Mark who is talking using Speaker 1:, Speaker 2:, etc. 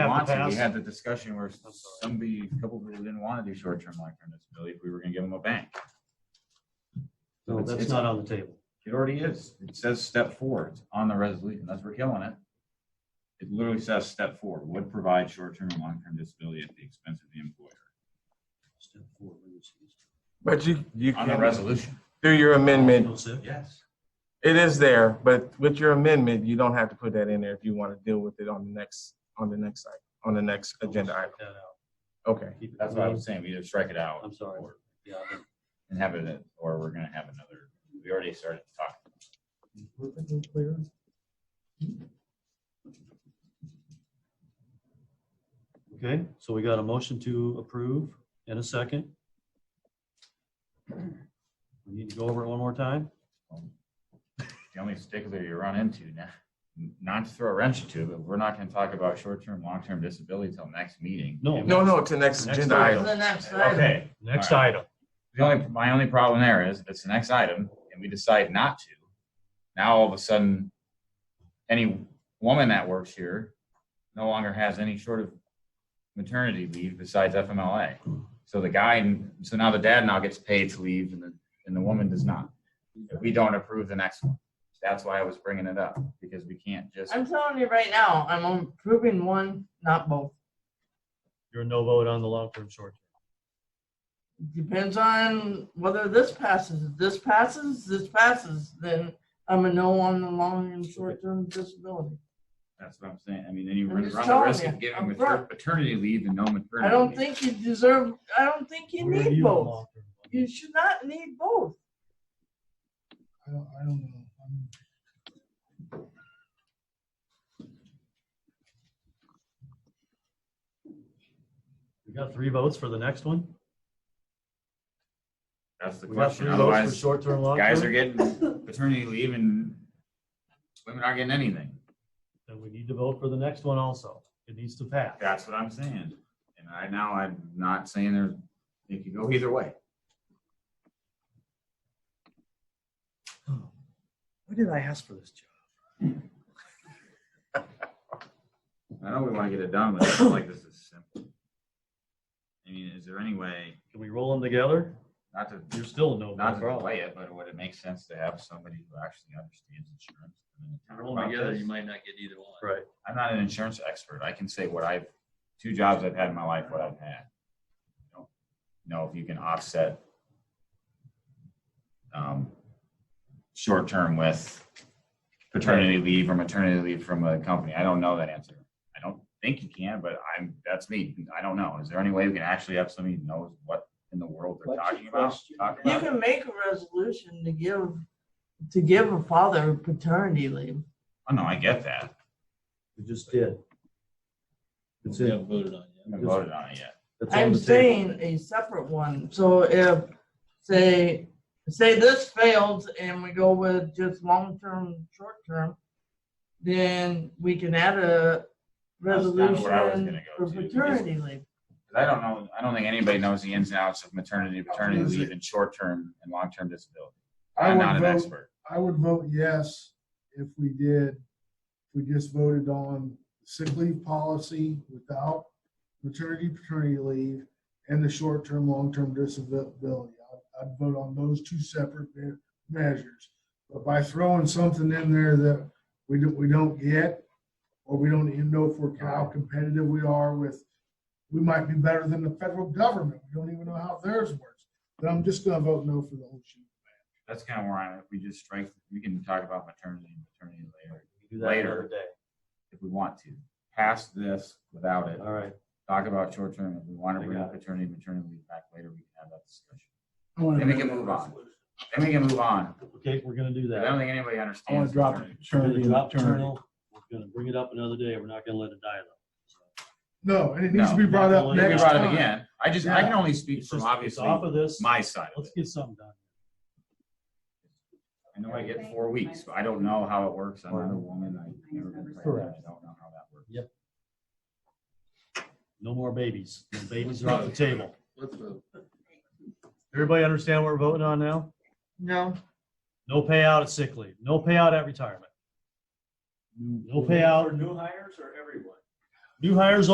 Speaker 1: Johnson, we
Speaker 2: past.
Speaker 1: had the discussion where somebody, a couple people didn't want to do short-term long-term disability if we were gonna give them a bank.
Speaker 2: No, that's not on the table.
Speaker 1: It already is. It says step four. It's on the resolution. That's we're killing it. It literally says step four, would provide short-term and long-term disability at the expense of the employer.
Speaker 2: Step four, let me see.
Speaker 3: But you, you
Speaker 1: On the
Speaker 3: can,
Speaker 1: resolution.
Speaker 3: through your amendment,
Speaker 2: That's it.
Speaker 1: Yes.
Speaker 3: it is there, but with your amendment, you don't have to put that in there if you want to deal with it on the next, on the next, site- on the next agenda item.
Speaker 2: Check that out.
Speaker 3: Okay.
Speaker 2: Keep it
Speaker 1: That's what I
Speaker 2: clean.
Speaker 1: was saying. We either strike it out.
Speaker 2: I'm sorry.
Speaker 1: or-
Speaker 2: Yeah, I think-
Speaker 1: And have it, in- or we're gonna have another, we already started talking.
Speaker 4: Perfectly clear.
Speaker 2: Okay, so we got a motion to approve in a second. We need to go over it one more time.
Speaker 1: The only stickler you run into now, not to throw a wrench into, it, but we're not gonna talk about short-term, long-term disability till next meeting.
Speaker 2: No.
Speaker 1: And-
Speaker 3: No, no, to next
Speaker 2: Next
Speaker 3: agenda
Speaker 2: item.
Speaker 3: item.
Speaker 1: Okay.
Speaker 5: Next
Speaker 1: All right.
Speaker 5: item.
Speaker 1: The only, my only problem there is it's the next item and we decide not to. Now all of a sudden, any woman that works here no longer has any sort of maternity leave besides FMLA. So the guy, so now the dad now gets paid to leave and the, and the woman does not. If we don't approve the next one. That's why I was bringing it up because we can't just,
Speaker 6: I'm telling you right now, I'm approving one, not both.
Speaker 2: You're a no vote on the long-term short.
Speaker 6: Depends on whether this passes. If this passes, this passes, then I'm a no on the long and short term disability.
Speaker 1: that's what I'm saying. I mean, then you
Speaker 6: I'm
Speaker 1: run
Speaker 6: just
Speaker 1: the
Speaker 6: telling
Speaker 1: risk
Speaker 6: you,
Speaker 1: of giving
Speaker 6: I'm
Speaker 1: mater-
Speaker 6: front.
Speaker 1: paternity leave and no maternity.
Speaker 6: I don't
Speaker 1: leave.
Speaker 6: think you deserve, I don't think you
Speaker 2: Where are
Speaker 6: need
Speaker 2: you on
Speaker 6: both.
Speaker 2: long-term?
Speaker 6: You should not need both.
Speaker 4: I don't, I don't know. I'm-
Speaker 2: We got three votes for the next one?
Speaker 1: That's the
Speaker 2: We got three
Speaker 1: question.
Speaker 2: votes for
Speaker 1: Otherwise,
Speaker 2: short-term,
Speaker 1: guys are
Speaker 2: long-term?
Speaker 1: getting paternity leave and women aren't getting anything.
Speaker 2: Then we need to vote for the next one also. It needs to pass.
Speaker 1: That's what I'm saying. And I now I'm not saying there, it could go either way.
Speaker 2: Why did I ask for this job?
Speaker 1: I know we want to get it done, but it's like this is simple. I mean, is there any way
Speaker 2: Can we roll them together?
Speaker 1: not to
Speaker 2: You're still a no
Speaker 1: not
Speaker 2: vote.
Speaker 1: to delay
Speaker 2: probably.
Speaker 1: it, but would it make sense to have somebody who actually understands insurance? I mean, talk
Speaker 7: Roll
Speaker 1: about
Speaker 7: them together,
Speaker 1: this?
Speaker 7: you might not get either one.
Speaker 2: Right.
Speaker 1: I'm not an insurance expert. I can say what I've, two jobs I've had in my life, what I've had. You know, Know if you can offset um, short term with paternity leave or maternity leave from a company. I don't know that answer. I don't think you can, but I'm, that's me. I don't know. Is there any way we can actually have somebody who knows what in the world they're talking about? Talk
Speaker 6: You
Speaker 1: about it.
Speaker 6: can make a resolution to give, to give a father paternity leave.
Speaker 1: Oh, no, I get that.
Speaker 2: We just did. It's
Speaker 7: We
Speaker 2: in.
Speaker 7: haven't voted on
Speaker 1: I haven't voted on it yet.
Speaker 2: It's on
Speaker 6: I'm
Speaker 2: the table.
Speaker 6: saying a separate one, so if, say, say this fails and we go with just long-term, short-term, then we can add a
Speaker 1: That's kinda where I was
Speaker 6: resolution
Speaker 1: gonna go
Speaker 6: for
Speaker 1: to, because-
Speaker 6: paternity leave.
Speaker 1: 'Cause I don't know, I don't think anybody knows the ins and outs of maternity, paternity leave and short-term and long-term disability.
Speaker 4: I
Speaker 1: I'm not
Speaker 4: would
Speaker 1: an
Speaker 4: vote,
Speaker 1: expert.
Speaker 4: I would vote yes if we did, if we just voted on sick leave policy without maternity, paternity leave, and the short-term, long-term disability. I'd- I'd vote on those two separate me- measures. But by throwing something in there that we don't, we don't get, or we don't even know if we're, how competitive we are with, we might be better than the federal government. We don't even know how theirs works. Then I'm just gonna vote no for the whole shoot.
Speaker 1: That's kind of where I, if we just strike, we can talk about maternity and paternity later,
Speaker 2: We can Do that another
Speaker 1: Later.
Speaker 2: day.
Speaker 1: if we want to. Pass this without it,
Speaker 2: All right.
Speaker 1: talk about short-term, if we want
Speaker 2: I
Speaker 1: to bring
Speaker 2: got
Speaker 1: paternity, and maternity leave back later, we can have that discussion.
Speaker 4: I wanna
Speaker 1: Then we
Speaker 4: vote
Speaker 1: can move on. Then we can move on.
Speaker 2: Okay, we're gonna do
Speaker 1: I
Speaker 2: that.
Speaker 1: don't think anybody
Speaker 4: I want
Speaker 1: understands.
Speaker 4: to drop
Speaker 1: maternity.
Speaker 2: We're gonna
Speaker 4: paternity. and
Speaker 2: drop
Speaker 4: maternity.
Speaker 2: Turtle. We're gonna bring it up another day. We're not gonna let it die though.
Speaker 4: No, and it needs to
Speaker 1: No.
Speaker 4: be brought up
Speaker 2: Well,
Speaker 1: I
Speaker 2: you
Speaker 1: think we
Speaker 4: next
Speaker 1: brought it
Speaker 4: time.
Speaker 1: again. I just, I can only speak
Speaker 2: It's
Speaker 1: from
Speaker 2: just, it's
Speaker 1: obviously
Speaker 2: off of this.
Speaker 1: my side of
Speaker 2: Let's
Speaker 1: it.
Speaker 2: get something done.
Speaker 1: I know I get four weeks, but I don't know how it works. I'm not a woman. I've never been pregnant.
Speaker 2: Correct.
Speaker 1: I don't know how that works.
Speaker 2: No more babies. The Babies are off the table.
Speaker 7: Let's vote.
Speaker 2: Everybody understand what we're voting on now?
Speaker 6: No,
Speaker 2: No payout at sick leave, no payout at retirement. No payout,
Speaker 5: new hires or everyone?
Speaker 2: new hires